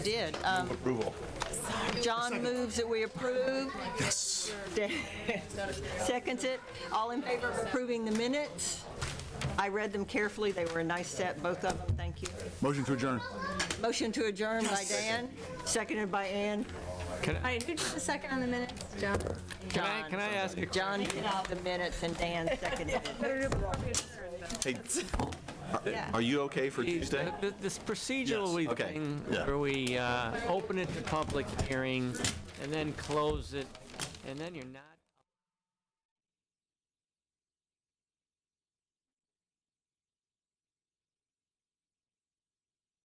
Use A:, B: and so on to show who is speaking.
A: did. Um,
B: Approval.
A: John moves that we approve.
B: Yes.
A: Seconds it. All in favor of approving the minutes? I read them carefully. They were a nice set, both of them. Thank you.
C: Motion to adjourn.
A: Motion to adjourn by Dan, seconded by Ann.
D: All right, who did the second on the minutes? John.
A: Can
D: I- can I ask a-
A: John did the minutes and Dan seconded it.
B: Hey,
A: Yeah.
B: Are you okay for Tuesday?
D: Uh, Th- th- This procedural
B: okay,
D: thing,
B: yeah.
D: where we uh, open it to public hearing and then close it, and then you're not...